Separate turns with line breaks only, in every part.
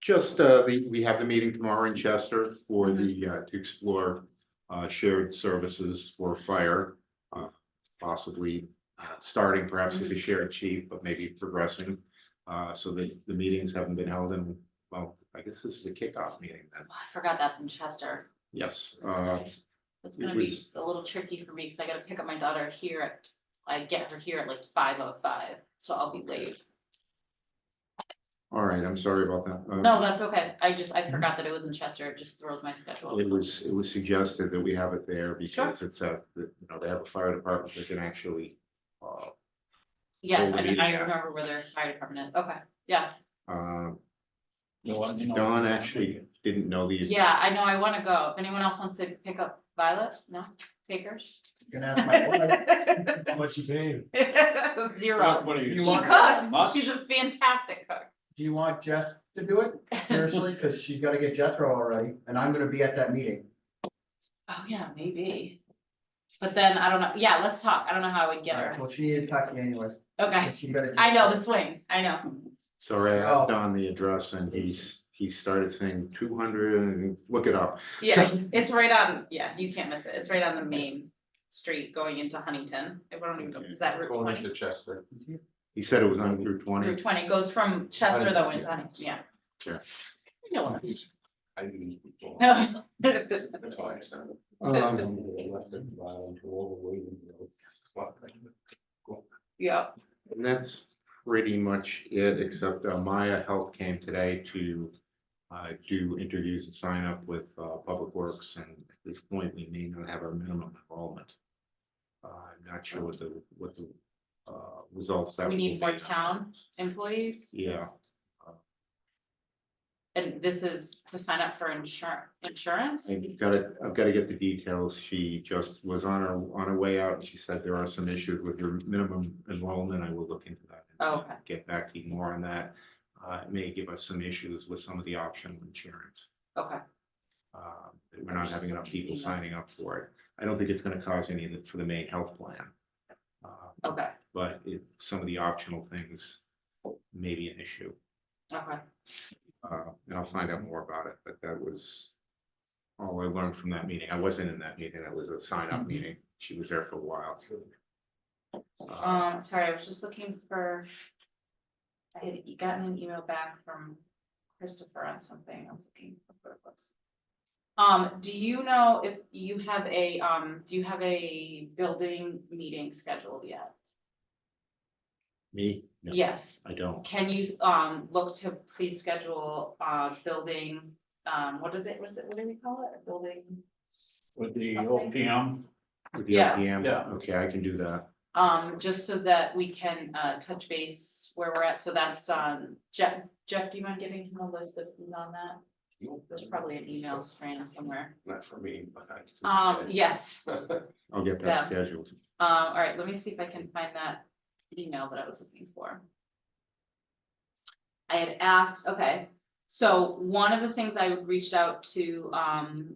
Just, uh, the, we have the meeting tomorrow in Chester for the, uh, to explore, uh, shared services for fire. uh, Possibly, uh, starting perhaps with the shared chief, but maybe progressing. Uh, so the, the meetings haven't been held in, well, I guess this is a kickoff meeting then.
I forgot that's in Chester.
Yes, uh,
It's
it
gonna be
was-
a little tricky for me because I gotta pick up my daughter here at, I get her here at like five oh five, so I'll be late.
all right, I'm sorry about that. Uh,
No, that's okay. I just, I forgot that it was in Chester. It just throws my schedule.
It was, it was suggested that we have it there because it's a, you know, they have a fire department that can actually, uh,
Yes, I mean, I
Yeah.
remember where their fire department is. Okay, yeah,
uh,
No, I- you know-
Don actually didn't know the.
yeah, I know, I wanna go. If anyone else wants to pick up Violet, no, take her.
You can ask my wife How much you pay?
Zero.
What are
She
you?
cooks.
Much?
She's a fantastic cook.
Do you want Jess to do it? Seriously, because she's gotta get Jethro already, and I'm gonna be at that meeting.
Oh, yeah, maybe. But then I don't know. Yeah, let's talk. I don't know how I would get her.
Well, she needed to talk to me anyway.
Okay,
She better-
I know the swing. I know.
Sorry, I asked
Oh.
Don the address and he's, he started saying two hundred and look it up.
Yeah, it's right on, yeah, you can't miss it. It's right on the main street going into Huntington. If I don't even, know- is that Route
Going
twenty?
into Chester.
He said it was on Route
Route
twenty.
twenty goes from Chester though into Huntington, yeah.
Yeah.
You know what I'm
I knew before.
No.
That's why I said.
Um,
Yeah,
And that's pretty much it, except uh, Maya Health came today to uh, do interviews and sign up with uh, Public Works, and at this point, we may not have our minimum enrollment. Uh, I'm not sure what the, what the uh, results. that
we need
will
more
be.
town employees
Yeah,
and this is to sign up for insurance, insurance?
I've got to, I've got to get the details. She just was on her, on her way out, and she said there are some issues with your minimum enrollment. I will look into that. and
Okay.
Get back to you more on that. Uh, It may give us some issues with some of the optional insurance.
Okay,
uh, that we're not having enough people signing up for it. I don't think it's gonna cause any of the- for the main health plan. Uh,
okay,
But it, some of the optional things may be an issue,
okay.
uh, and I'll find out more about it, but that was all I learned from that meeting. I wasn't in that meeting, it was a sign-up
Mm-hmm.
meeting. She was there for a while. Uh,
Um, sorry, I was just looking for. I had e- gotten an email back from Christopher on something. I was looking for what it was. Um, do you know if you have a, um, do you have a building meeting scheduled yet?
Me? No,
Yes.
I don't.
Can you, um, look to please schedule, uh, building, um, what is it, what is it, what do we call it? A building?
With the OPM,
With the
Yeah.
OPM,
Yeah.
okay, I can do that.
Um, just so that we can, uh, touch base where we're at. So that's, um, Jeff, Jeff, do you mind giving him a list of, who's on that? There's probably an email strand somewhere.
Not for me, but I.
Um, yes,
I'll get that
Yeah.
scheduled.
uh, all right, let me see if I can find that email that I was looking for. I had asked, okay, so one of the things I reached out to, um,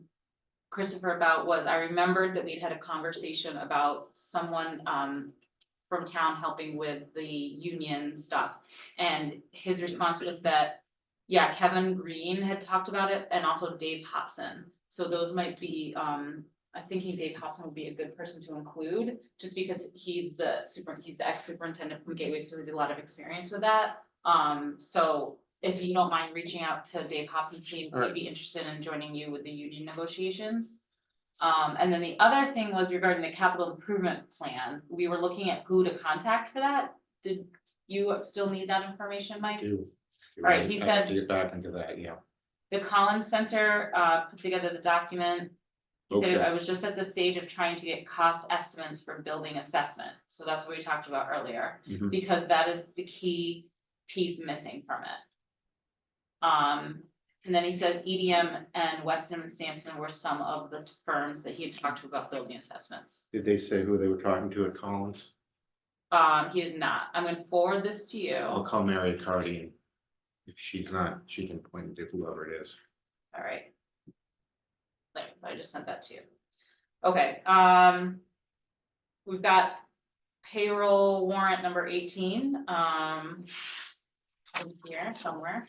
Christopher about was I remembered that we'd had a conversation about someone, um, from town helping with the union stuff. And his response was that, yeah, Kevin Green had talked about it and also Dave Hobson. So those might be, um, I'm thinking Dave Hobson would be a good person to include, just because he's the super, he's the ex-superintendent from Gateway, so he has a lot of experience with that. Um, so if you don't mind reaching out to Dave Hobson, see if he'd be interested in joining you with the union negotiations. Um, and then the other thing was regarding the capital improvement plan. We were looking at who to contact for that. Did you still need that information, Mike?
Do.
All right, he
I have to
said-
Get back into that, yeah.
The Collins Center uh put together the document. He said,
Okay.
I was just at the stage of trying to get cost estimates for building assessment, so that's what we talked about earlier.
Mhm.
Because that is the key piece missing from it. Um, and then he said EDM and Weston and Sampson were some of the firms that he had talked to about building assessments.
Did they say who they were talking to at Collins?
Um, he did not, I'm gonna forward this to you,
I'll
all
call Mary Cardy and if she's not, she can point to whoever it is.
right? There, I just sent that to you. Okay, um. We've got payroll warrant number eighteen, um. in Here somewhere,